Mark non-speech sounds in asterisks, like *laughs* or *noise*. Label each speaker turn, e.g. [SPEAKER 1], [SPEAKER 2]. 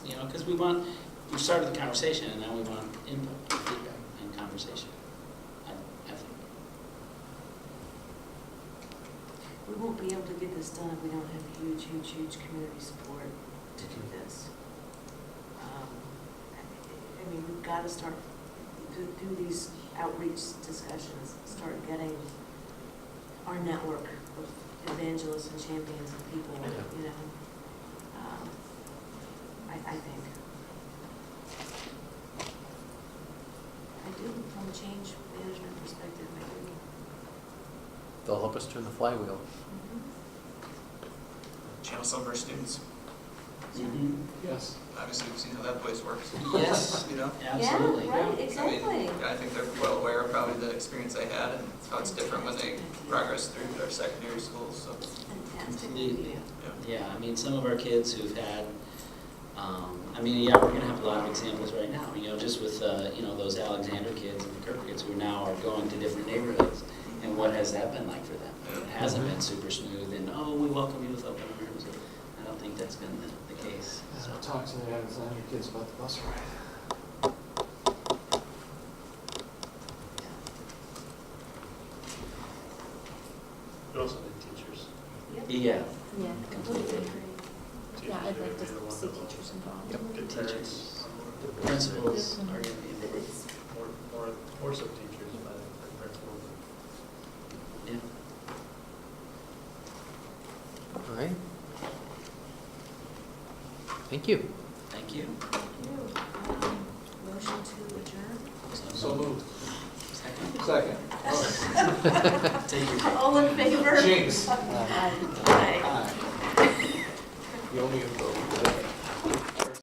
[SPEAKER 1] know, because we want, we started the conversation, and now we want input, and feedback, and conversation, I, I think.
[SPEAKER 2] We won't be able to get this done if we don't have huge, huge, huge community support to do this. Um, I I mean, we've got to start, do, do these outreach discussions, start getting our network of evangelists and champions and people,
[SPEAKER 3] Yeah.
[SPEAKER 2] you know. um, I, I think. I do, from a change management perspective, I
[SPEAKER 3] They'll help us turn the flywheel.
[SPEAKER 2] do.
[SPEAKER 4] Channel some of our students.
[SPEAKER 3] Yes.
[SPEAKER 4] Obviously, we've seen how that place works.
[SPEAKER 1] Yes.
[SPEAKER 4] Mm-hmm. *laughs* You know?
[SPEAKER 1] Absolutely.
[SPEAKER 2] Yeah, right,
[SPEAKER 4] I mean,
[SPEAKER 2] exactly.
[SPEAKER 4] I think they're well aware of probably the experience they had and how it's different when they progress through their secondary schools, so,
[SPEAKER 2] Fantastic
[SPEAKER 1] Indeed.
[SPEAKER 2] media.
[SPEAKER 4] yeah.
[SPEAKER 1] Yeah, I mean, some of our kids who've had, um, I mean, yeah, we're gonna have a lot of examples right now, you know, just with, uh, you know, those Alexander kids and the Kirk kids who now are going to different neighborhoods, and what has that been like for them? It hasn't been super smooth, and, oh, we welcome you with open arms, I don't think that's been the, the case, so.
[SPEAKER 5] I'll talk to the Alexander kids about the bus ride.
[SPEAKER 6] But also the teachers.
[SPEAKER 2] Yep,
[SPEAKER 1] Yeah,
[SPEAKER 7] Yeah, completely agree. Yeah, I'd like to
[SPEAKER 6] Teachers are
[SPEAKER 7] see
[SPEAKER 6] the one
[SPEAKER 7] teachers involved.
[SPEAKER 3] Yep.
[SPEAKER 6] that- The
[SPEAKER 1] teachers.
[SPEAKER 6] teachers,
[SPEAKER 1] the principals are gonna be,
[SPEAKER 7] But it's-
[SPEAKER 6] more, more, more so teachers, but the principals.
[SPEAKER 1] yeah.
[SPEAKER 3] All right. Thank you.
[SPEAKER 1] Thank you.
[SPEAKER 2] thank you. Um, Motion to adjourn?
[SPEAKER 5] So moved.
[SPEAKER 1] Second.
[SPEAKER 5] Second.
[SPEAKER 1] Take your.
[SPEAKER 2] All in favor?
[SPEAKER 5] Jinx.
[SPEAKER 2] Aye.
[SPEAKER 5] Aye. You owe me a vote.